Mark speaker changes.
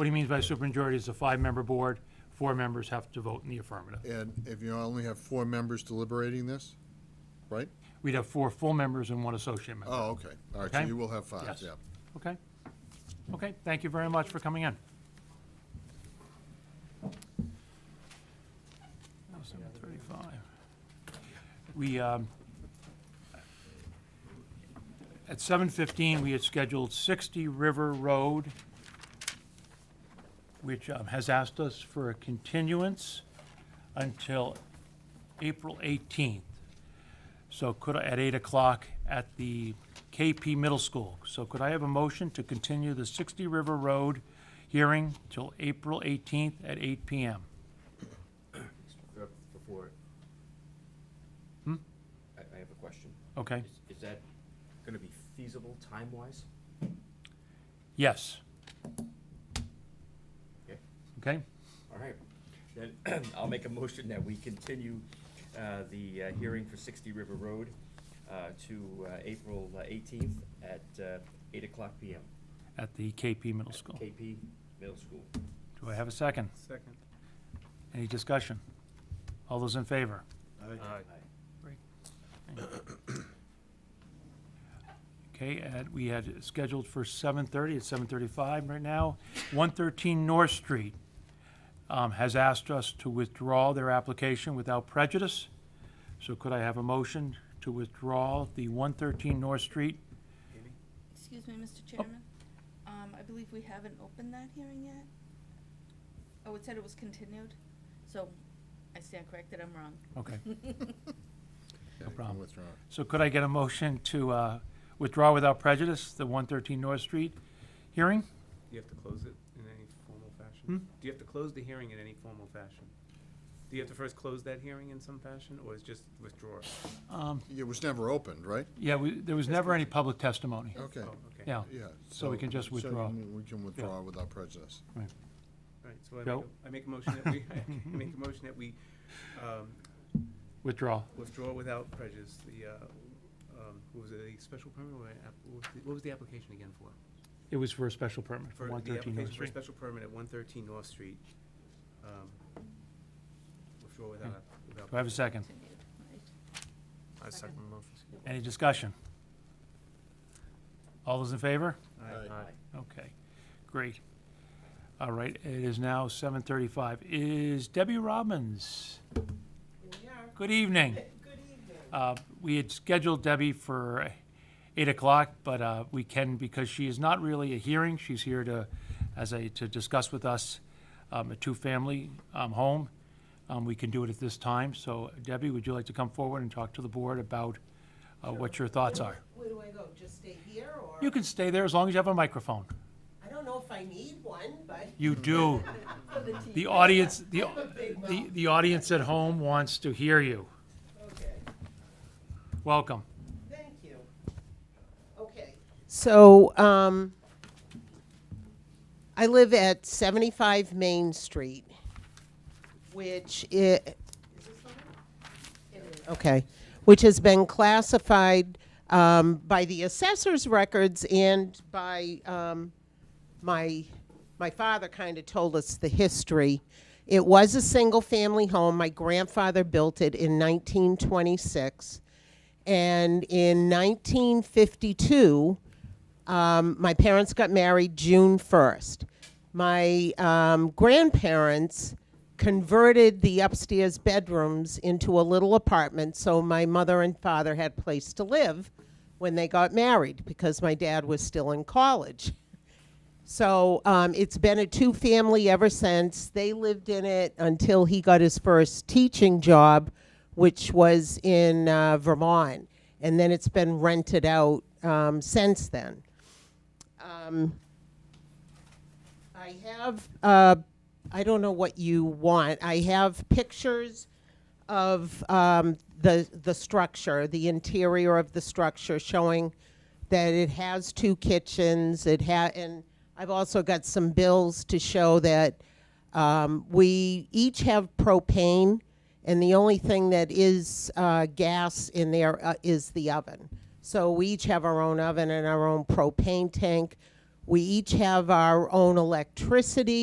Speaker 1: What he means by supermajority is a five-member board, four members have to vote in the affirmative.
Speaker 2: And if you only have four members deliberating this, right?
Speaker 1: We'd have four full members and one associate member,
Speaker 2: Oh, okay. All right, so
Speaker 1: Okay.
Speaker 2: you will have five,
Speaker 1: Yes.
Speaker 2: yeah.
Speaker 1: okay? Okay, thank you very much for coming in. Now, 7:35. We, um, at 7:15, we had scheduled 60 River Road, which um, has asked us for a continuance until April 18th. So could, I at 8 o'clock at the KP Middle School. So could I have a motion to continue the 60 River Road hearing till April 18th at 8 PM?
Speaker 3: Before.
Speaker 1: Hmm?
Speaker 3: I, I have a question.
Speaker 1: Okay,
Speaker 3: Is, is that gonna be feasible time-wise?
Speaker 1: yes,
Speaker 3: Okay,
Speaker 1: okay?
Speaker 3: all right. Then I'll make a motion that we continue, uh, the, uh, hearing for sixty River Road, uh, to, uh, April eighteenth at, uh, eight o'clock PM.
Speaker 1: At the KP Middle
Speaker 3: at
Speaker 1: School.
Speaker 3: KP Middle School.
Speaker 1: Do I have a second?
Speaker 4: Second.
Speaker 1: Any discussion? All those in favor?
Speaker 3: Aye.
Speaker 1: Okay, and we had it scheduled for 7:30, it's 7:35 right now. 113 North Street um, has asked us to withdraw their application without prejudice. So could I have a motion to withdraw the 113 North Street?
Speaker 5: Excuse me, Mr. Chairman. Um, I believe we haven't opened that hearing yet. Oh, it said it was continued, so I stand corrected, I'm wrong.
Speaker 1: Okay,
Speaker 2: No
Speaker 1: problem.
Speaker 2: Withdraw.
Speaker 1: so could I get a motion to uh, withdraw without prejudice the 113 North Street hearing?
Speaker 4: Do you have to close it in any formal fashion? Do you have to close the hearing in any formal fashion? Do you have to first close that hearing in some fashion, or is just withdraw?
Speaker 2: It was never opened, right?
Speaker 1: Um, Yeah, we- there was never any public testimony,
Speaker 2: Okay,
Speaker 4: Oh, okay.
Speaker 1: yeah.
Speaker 2: yeah.
Speaker 1: So we can just
Speaker 2: so
Speaker 1: withdraw.
Speaker 2: We can withdraw without prejudice.
Speaker 4: All right, so I make
Speaker 1: Joe?
Speaker 4: a- I make a motion that we, I make a motion that we um,
Speaker 1: Withdraw.
Speaker 4: withdraw without prejudice the, uh, um, what was it, a special permit or an app- what was the- what was the application again for?
Speaker 1: It was for a special permit for
Speaker 4: For the
Speaker 1: 113 North
Speaker 4: application for a
Speaker 1: Street.
Speaker 4: special permit at 113 North Street. um, Withdraw without, without.
Speaker 1: Hmm. Do I have a second?
Speaker 5: Continued, right.
Speaker 4: I second the motion.
Speaker 1: Any discussion? All those in favor?
Speaker 2: Aye.
Speaker 3: Aye.
Speaker 1: Okay, great. All right, it is now seven thirty-five. Is Debbie Robbins? Good evening. Good evening. We had scheduled Debbie for eight o'clock, but uh, we can, because she is not really a hearing, she's here to, as a, to discuss with us um, a two-family um, home. Um, We can do it at this time, so Debbie, would you like to come forward and talk to the board about uh, what your thoughts are?
Speaker 6: Where do I go? Just stay here or?
Speaker 1: You can stay there as long as you have a microphone.
Speaker 6: I don't know if I need one, but
Speaker 1: You do. The audience, the, the, the audience at home wants to hear you.
Speaker 6: okay,
Speaker 1: Welcome.
Speaker 6: thank you. Okay. So, um, I live at seventy-five Main Street, which i- Okay, which has been classified, um, by the assessor's records and by, um, my my father kind of told us the history. It was a single family home. My grandfather built it in 1926. And in 1952, um, my parents got married June 1st. My um, grandparents converted the upstairs bedrooms into a little apartment so my mother and father had a place to live when they got married because my dad was still in college. So um, it's been a two family ever since. They lived in it until he got his first teaching job, which was in uh, Vermont. And then it's been rented out um, since then. I have, uh, I don't know what you want. I have pictures of um, the, the structure, the interior of the structure, showing that it has two kitchens. It ha- and I've also got some bills to show that um, we each have propane, and the only thing that is uh, gas in there uh, is the oven. So we each have our own oven and our own propane tank We each have our own electricity.